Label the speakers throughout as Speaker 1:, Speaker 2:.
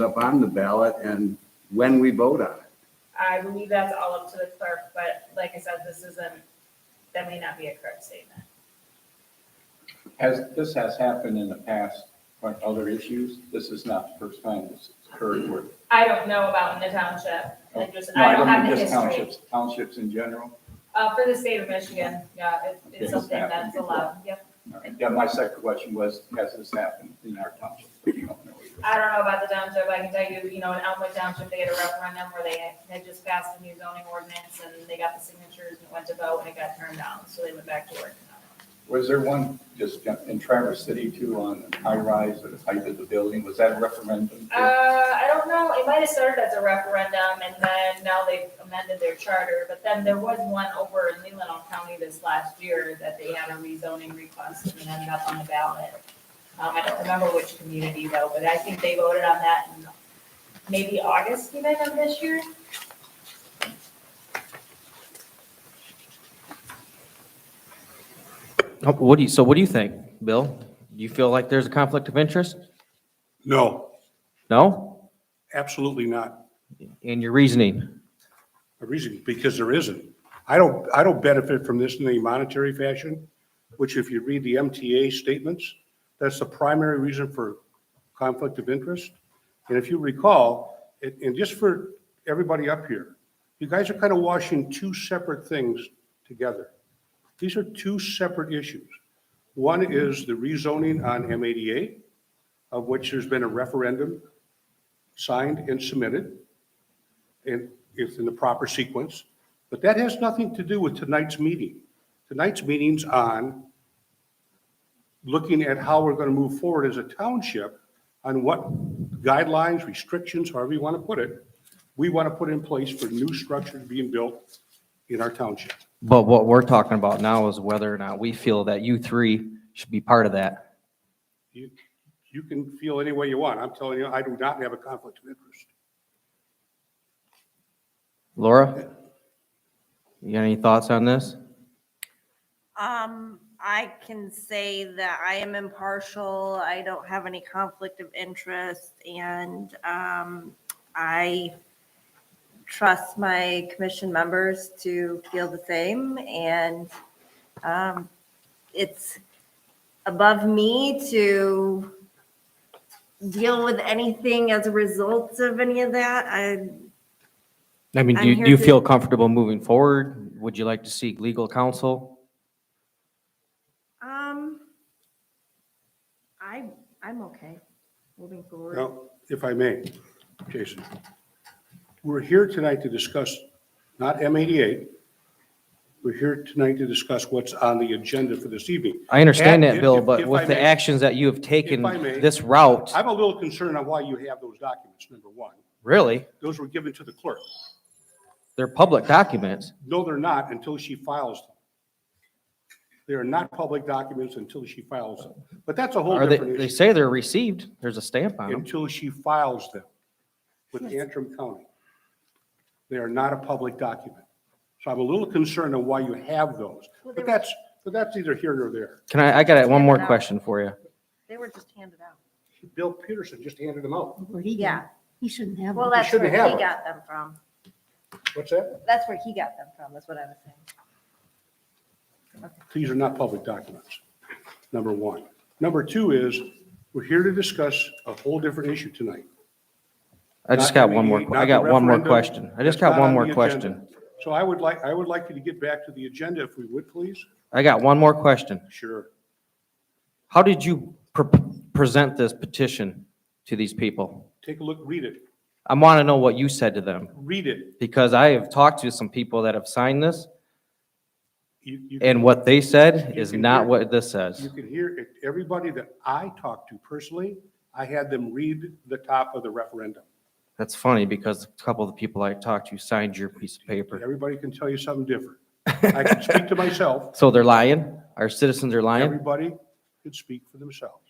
Speaker 1: up on the ballot and when we vote on it.
Speaker 2: I believe that's all up to the clerk, but like I said, this isn't, that may not be a correct statement.
Speaker 3: Has, this has happened in the past on other issues. This is not the first time this has occurred with.
Speaker 2: I don't know about in the township, I just,
Speaker 3: No,
Speaker 2: I don't
Speaker 3: mean
Speaker 2: have the
Speaker 3: just
Speaker 2: history.
Speaker 3: townships, Townships in general.
Speaker 2: Uh, for the state of Michigan, yeah, it- it's
Speaker 3: It's
Speaker 2: something
Speaker 3: happened
Speaker 2: that's allowed, yep.
Speaker 3: All right. Yeah, my second question was, has this happened in our townships? But you don't know either.
Speaker 2: I don't know about the township, I can tell you, you know, in Elmwood Township, they had a referendum where they had just passed a new zoning ordinance and they got the signatures and it went to vote and it got turned down, so they went back to work.
Speaker 3: Was there one just in Traverse City too on high rise or the height of the building? Was that a referendum? too?
Speaker 2: Uh, I don't know, it might have started as a referendum and then now they've amended their charter, but then there was one over in Leland County this last year that they had a rezoning request and it ended up on the ballot. Um, I don't remember which community though, but I think they voted on that in maybe August even of this year.
Speaker 4: Oh, What do you, so what do you think, Bill? Do you feel like there's a conflict of interest?
Speaker 5: No,
Speaker 4: No?
Speaker 5: absolutely not.
Speaker 4: And your reasoning?
Speaker 5: The reason, because there isn't. I don't, I don't benefit from this in any monetary fashion, which if you read the MTA statements, that's the primary reason for conflict of interest. And if you recall, and, and just for everybody up here, you guys are kind of washing two separate things together. These are two separate issues. One is the rezoning on M88, of which there's been a referendum signed and submitted. and if in the proper sequence. But that has nothing to do with tonight's meeting. Tonight's meeting's on looking at how we're going to move forward as a township on what guidelines, restrictions, however you want to put it, we want to put in place for new structures being built in our township.
Speaker 4: But what we're talking about now is whether or not we feel that you three should be part of that.
Speaker 5: You, you can feel any way you want. I'm telling you, I do not have a conflict of interest.
Speaker 4: Laura? You got any thoughts on this?
Speaker 6: Um, I can say that I am impartial. I don't have any conflict of interest and, um, I trust my commission members to feel the same and, um, it's above me to deal with anything as a result of any of that. I,
Speaker 4: I mean, do
Speaker 6: I'm
Speaker 4: you,
Speaker 6: here
Speaker 4: do you
Speaker 6: to-
Speaker 4: feel comfortable moving forward? Would you like to seek legal counsel?
Speaker 6: um, I, I'm okay moving forward.
Speaker 5: Now, if I may, Jason, we're here tonight to discuss not M88. We're here tonight to discuss what's on the agenda for this evening.
Speaker 4: I understand
Speaker 5: And
Speaker 4: that,
Speaker 5: if-
Speaker 4: Bill,
Speaker 5: if-
Speaker 4: but
Speaker 5: if I
Speaker 4: with the
Speaker 5: may,
Speaker 4: actions that you have taken
Speaker 5: I may-
Speaker 4: this route,
Speaker 5: I'm a little concerned on why you have those documents, number one.
Speaker 4: really,
Speaker 5: Those were given to the clerk.
Speaker 4: they're public documents.
Speaker 5: No, they're not until she files them. They are not public documents until she files them. But that's a whole
Speaker 4: Are they,
Speaker 5: different
Speaker 4: they
Speaker 5: issue.
Speaker 4: say they're received. There's a stamp on them.
Speaker 5: Until she files them with Antrim County. They are not a public document. So I'm a little concerned on why you have those. But that's, but that's either here or there.
Speaker 4: Can I, I got one more
Speaker 6: Yeah.
Speaker 4: question for you.
Speaker 6: They were just handed out.
Speaker 5: Bill Peterson just handed them out.
Speaker 7: Where'd he
Speaker 6: Yeah,
Speaker 7: go? He shouldn't have.
Speaker 6: well,
Speaker 7: them.
Speaker 6: that's where
Speaker 5: shouldn't have
Speaker 6: he
Speaker 5: them.
Speaker 6: got them from.
Speaker 5: What's that?
Speaker 6: That's where he got them from, is what I was saying.
Speaker 5: These are not public documents, number one. Number two is, we're here to discuss a whole different issue tonight.
Speaker 4: I just
Speaker 5: Not
Speaker 4: got
Speaker 5: the
Speaker 4: one more,
Speaker 5: meeting,
Speaker 4: I
Speaker 5: not
Speaker 4: got
Speaker 5: the
Speaker 4: one more
Speaker 5: referendum.
Speaker 4: question. I just got
Speaker 5: That's not
Speaker 4: one
Speaker 5: on
Speaker 4: more
Speaker 5: the
Speaker 4: question.
Speaker 5: agenda. So I would like, I would like you to get back to the agenda if we would, please.
Speaker 4: I got one more question.
Speaker 5: Sure.
Speaker 4: How did you pre- present this petition to these people?
Speaker 5: Take a look, read it,
Speaker 4: I want to know what you said to them,
Speaker 5: read it.
Speaker 4: because I have talked to some people that have signed this,
Speaker 5: You, you,
Speaker 4: and what they said
Speaker 5: You
Speaker 4: is
Speaker 5: can
Speaker 4: not
Speaker 5: hear-
Speaker 4: what this
Speaker 5: you
Speaker 4: says.
Speaker 5: can hear it. Everybody that I talked to personally, I had them read the top of the referendum.
Speaker 4: That's funny, because a couple of the people I talked to signed your piece of paper.
Speaker 5: Everybody can tell you something different. I can speak to myself.
Speaker 4: So they're lying? Our citizens are lying?
Speaker 5: Everybody could speak for themselves.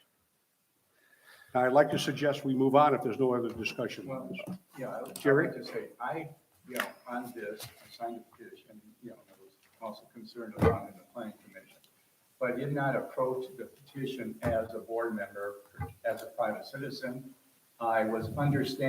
Speaker 5: Now, I'd like to suggest we move on if there's no other discussion.
Speaker 3: Well, Yeah, I would
Speaker 5: Jerry?
Speaker 3: just say, I, you know, on this, I signed a petition, you know, I was also concerned about it in the planning commission. But I did not approach the petition as a board member, as a private citizen. I was understanding